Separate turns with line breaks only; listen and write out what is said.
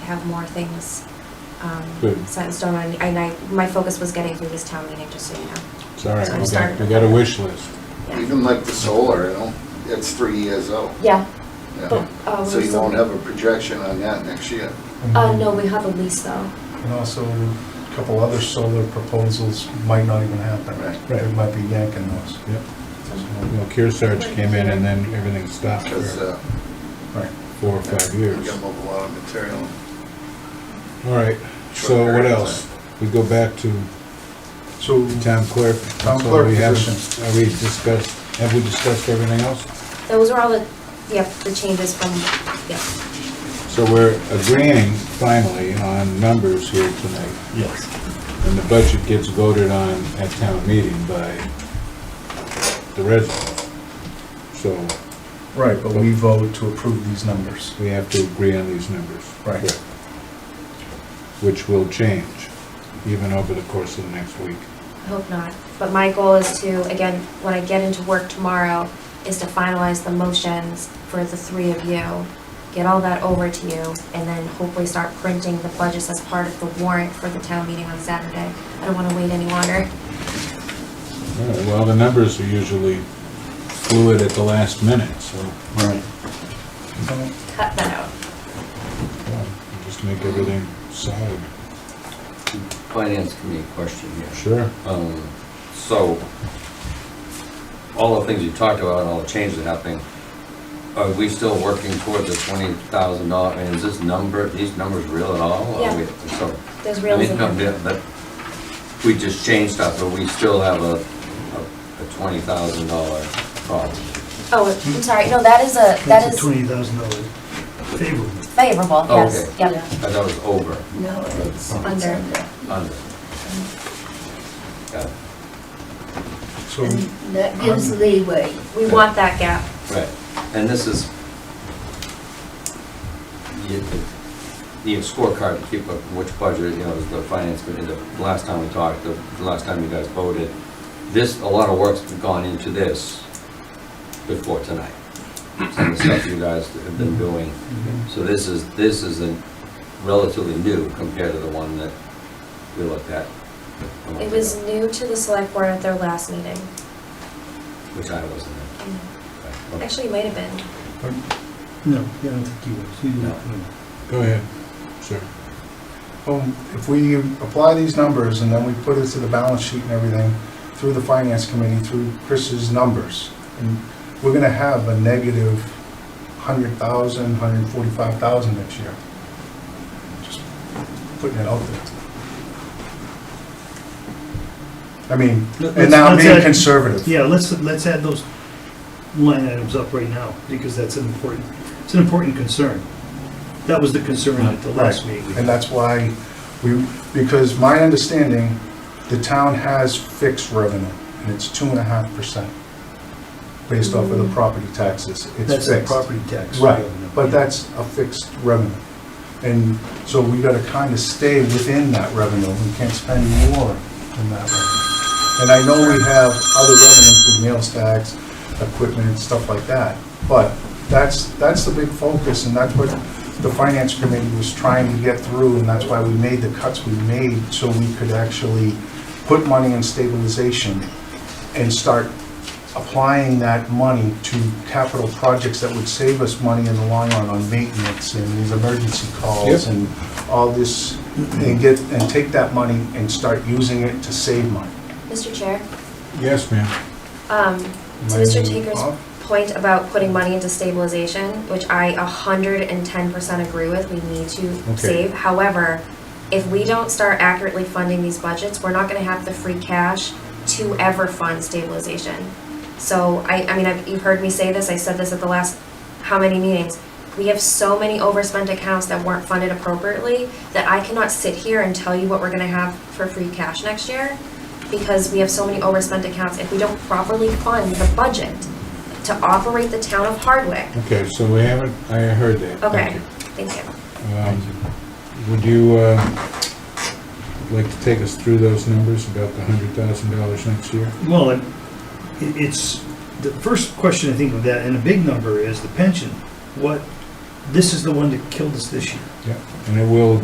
have more things um,
Good.
set in stone. And and I, my focus was getting through this town meeting, just so you know.
It's all right,
So
we got,
start-
we got a wish list.
Yeah.
Even like the solar, you know, it's three years out.
Yeah.
Yeah.
But, uh,
So
we're
you
still-
won't have a projection on that next year.
Uh, no, we have a lease though.
And also, a couple other solar proposals might not even happen.
Right.
They might be yanking those.
Yep. Well, Kearsarge came in and then everything stopped
Because
for
uh,
Right.
four or five
you
years.
can move a lot of material.
All right, so
Short
what
period of
else? We go back to
So,
town clerk.
Town
So
clerk
we haven't-
position.
Have we discussed, have we discussed everything else?
Those were all the, yep, the changes from, yeah.
So we're agreeing finally on numbers here tonight.
Yes.
And the budget gets voted on at town meeting by the residents. So
right, but we vote to approve these numbers.
we have to agree on these numbers.
Right.
Correct. Which will change even over the course of the next week.
I hope not. But my goal is to, again, when I get into work tomorrow, is to finalize the motions for the three of you, get all that over to you, and then hopefully start printing the budgets as part of the warrant for the town meeting on Saturday. I don't want to wait any longer.
All right, Well, the numbers are usually fluid at the last minute, so
Right.
Cut that out.
well, just make everything solid.
Finance committee question here.
Sure.
Um, So, all the things you talked about, and all the changes that happening, are we still working toward the twenty thousand dollar, and is this number, these numbers real at all? or
Yeah.
we- so-
There's reals in
I mean, no,
there.
yeah, but We just changed stuff, but we still have a, a- a twenty thousand dollar problem.
Oh, I'm sorry. No, that is a, that
That's a
is
twenty thousand dollar favorable.
favorable,
Oh,
yes,
okay.
yep.
I thought it was over,
No, it's
Oh.
Under.
under.
under. Got it.
So,
And that gives leeway.
We want that gap.
Right, and this is, you could need a scorecard to keep up which budget, you know, the finance committee, the last time we talked, the the last time you guys voted, this, a lot of work's gone into this before tonight. Some of the stuff you guys have been doing. So this is, this is a relatively new compared to the one that we looked at. a month
It was
ago,
new to the select board at their last meeting.
Which I wasn't
Mm.
in.
Actually, it might have been.
No, I don't think he was. He didn't.
No.
Go ahead, sir.
um, if we apply these numbers and then we put it to the balance sheet and everything, through the finance committee, through Chris's numbers, and we're gonna have a negative hundred thousand, hundred forty-five thousand next year. Just Putting it out there. I mean,
Let-
and now I'm
let's- let's
being
add-
conservative.
Yeah, let's, let's add those line items up right now, because that's an important, it's an important concern. That was the concern at the last meeting.
And that's why we, because my understanding, the town has fixed revenue, and it's two and a half percent based off of the property taxes. It's
Mm. That's the
fixed.
property tax.
Right,
revenue.
but that's a fixed revenue. And so we gotta kind of stay within that revenue. We can't spend more than that revenue. And I know we have other revenue through meals tax, equipment and stuff like that, but that's, that's the big focus and that's what the finance committee was trying to get through and that's why we made the cuts we made so we could actually put money in stabilization and start applying that money to capital projects that would save us money in the long run on maintenance and these emergency calls
Yep.
and all this, and get, and take that money and start using it to save money.
Mr. Chair?
Yes, ma'am.
Um, to
Am I
Mr.
moving off?
Tinker's point about putting money into stabilization, which I a hundred and ten percent agree with, we need
Okay.
to save. However, if we don't start accurately funding these budgets, we're not gonna have the free cash to ever fund stabilization. So I, I mean, I've, you've heard me say this, I said this at the last, how many meetings? We have so many overspent accounts that weren't funded appropriately that I cannot sit here and tell you what we're gonna have for free cash next year because we have so many overspent accounts, if we don't properly fund the budget to operate the town of Hardwick.
Okay, so we haven't, I heard that. Thank
Okay,
you.
thank you.
Um, Would you uh, like to take us through those numbers about the hundred thousand dollars next year?
Well, it- it's, the first question I think of that, and a big number, is the pension. What this is the one that killed us this year.
Yeah, and it will